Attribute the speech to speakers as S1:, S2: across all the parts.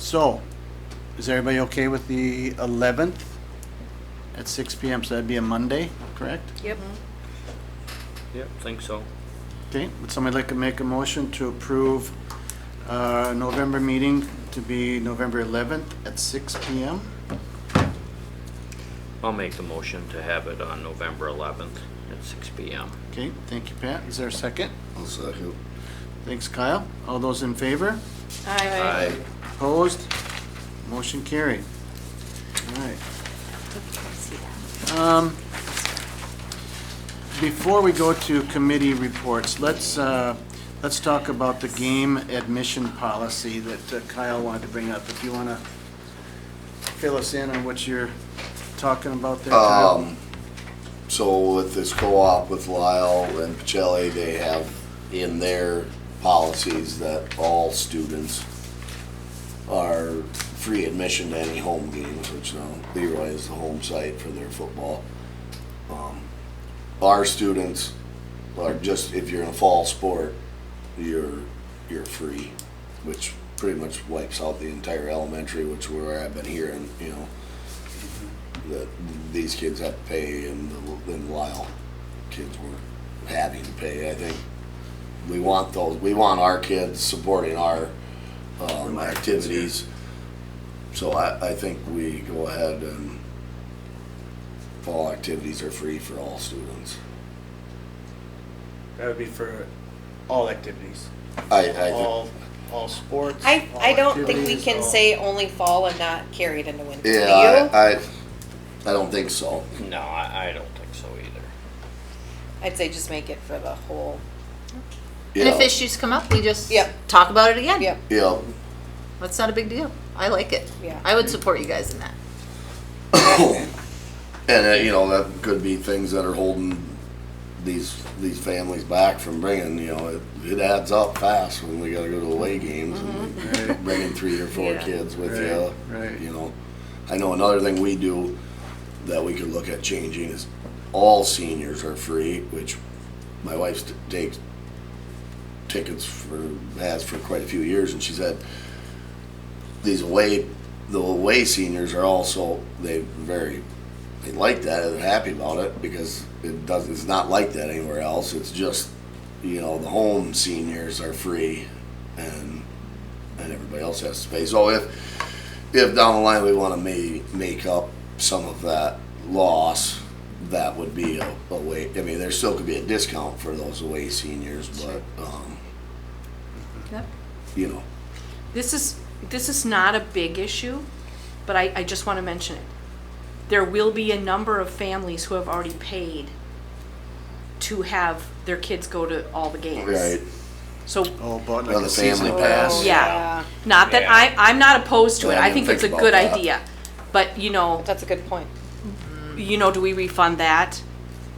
S1: So, is everybody okay with the 11th at 6 PM? So that'd be a Monday, correct?
S2: Yep.
S3: Yep, think so.
S1: Okay, would somebody like to make a motion to approve uh, November meeting to be November 11th at 6 PM?
S3: I'll make the motion to have it on November 11th at 6 PM.
S1: Okay, thank you, Pat. Is there a second?
S4: I'll second.
S1: Thanks, Kyle. All those in favor?
S2: Aye.
S1: Opposed? Motion carried. All right. Um, Before we go to committee reports, let's, uh, let's talk about the game admission policy that uh, Kyle wanted to bring up. If you want to fill us in on what you're talking about there, Kyle?
S4: Um, so with this co-op with Lyle and Pacelli, they have in their policies that all students are free admission to any home games, which now Leroy is the home site for their football. Um, Our students are just, if you're in a fall sport, you're, you're free, which pretty much wipes out the entire elementary, which where I've been hearing, you know, that these kids have to pay and then Lyle kids were having to pay. I think we want those, we want our kids supporting our um, activities. So I, I think we go ahead and fall activities are free for all students.
S5: That would be for all activities,
S4: I, I think,
S5: all, all sports.
S2: I,
S5: all
S2: I don't think we
S5: activities,
S2: can
S5: all-
S2: say only fall and not carry it into winter. Do
S4: yeah,
S2: you?
S4: I, I, I don't think so.
S3: No, I, I don't think so either.
S2: I'd say just make it for the whole,
S6: And if
S4: Yeah,
S6: issues come up, we just
S2: Yep.
S6: talk about it again.
S2: yep,
S4: Yeah,
S6: That's not a big deal. I like it.
S2: Yeah.
S6: I would support you guys in that.
S4: And uh, you know that could be things that are holding these these families back from bringing. You know, it, it adds up fast when we got to go to away games and bringing three or four
S6: Yeah.
S4: kids with
S1: Right,
S4: you.
S1: right.
S4: You know, I know another thing we do that we could look at changing is all seniors are free, which my wife t- takes tickets for has for quite a few years, and she said these away the away seniors are also they very they like that and they're happy about it because it does it's not like that anywhere else. It's just you know the home seniors are free and and everybody else has to pay. So if if down the line we want to may, make up some of that loss, that would be a, a way. I mean, there still could be a discount for those away seniors, but um,
S7: Yep.
S4: you know,
S7: This is, this is not a big issue, but I, I just want to mention it. There will be a number of families who have already paid to have their kids go to all the games.
S4: right?
S7: So,
S1: Oh, bought like
S4: Another
S1: a season
S4: family
S1: pass.
S4: pass.
S7: yeah, not that I, I'm not opposed to it.
S4: Yeah, I
S7: I
S4: didn't
S7: think it's a
S4: think
S7: good
S4: about that.
S7: idea. But, you know,
S2: that's a good point.
S7: you know, do we refund that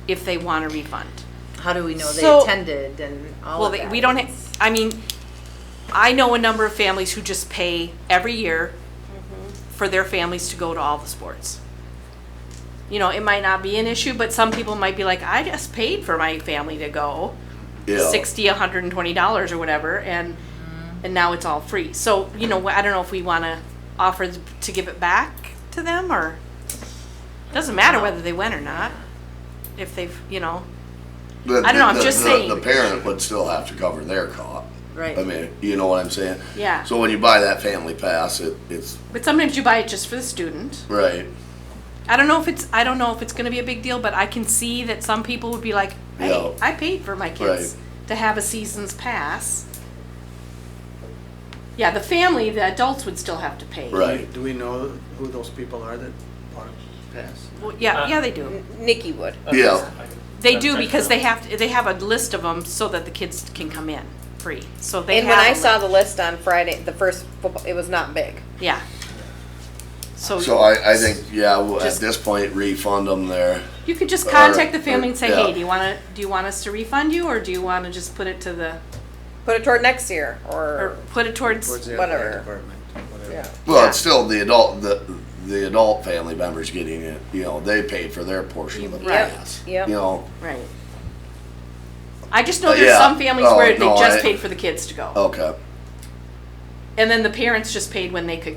S7: if they want a refund?
S6: How do we know
S2: So-
S6: they attended and all
S7: Well,
S6: of
S7: they-
S6: that?
S7: we don't, ha- I mean, I know a number of families who just pay every year for their families to go to all the sports. You know, it might not be an issue, but some people might be like, I just paid for my family to go,
S4: Yeah.
S7: sixty, a hundred and twenty dollars or whatever, and, and now it's all free. So, you know, I don't know if we wanna offer to give it back to them, or, doesn't matter whether they went or not, if they've, you know,
S4: The-
S7: I don't know, I'm
S4: the-
S7: just
S4: the-
S7: saying.
S4: The parent would still have to cover their cost.
S6: Right.
S4: I mean, you know what I'm saying?
S7: Yeah.
S4: So when you buy that family pass, it, it's,
S7: but sometimes you buy it just for the student.
S4: right,
S7: I don't know if it's I don't know if it's going to be a big deal, but I can see that some people would be like, "Hey,
S4: Yeah.
S7: I paid for my kids to have a season's pass." Yeah, the family, the adults would still have to pay.
S4: right.
S1: Do we know who those people are that bought a pass?
S7: Well, yeah, yeah, they do.
S2: Nikki would.
S4: Yeah,
S7: They do because they have to, they have a list of them so that the kids can come in free. So they
S2: And when
S7: have
S2: I
S7: a
S2: saw the
S7: li-
S2: list on Friday, the first football, it was not big.
S7: yeah. So,
S4: so I, I think, yeah, well, at
S7: Just-
S4: this point, refund them there.
S7: you could just contact the
S4: or-
S7: family and say,
S4: yeah.
S7: "Hey, do you want to do you want us to refund you or do you want to just put it to the
S2: Put it toward next year
S7: or
S2: or,
S7: put it
S1: Towards
S7: towards
S1: the
S2: Whatever.
S1: athletic department, whatever.
S2: yeah.
S4: Well, it's still the adult, the, the adult family members getting it, you know, they paid for their portion of the
S7: Right.
S4: pass.
S2: Yep.
S4: You know,
S7: Right. I just know there's
S4: Yeah.
S7: some families
S4: Oh,
S7: where they
S4: no,
S7: just
S4: I- Oh.
S7: paid for the kids to go,
S4: okay.
S7: and then the parents just paid when they could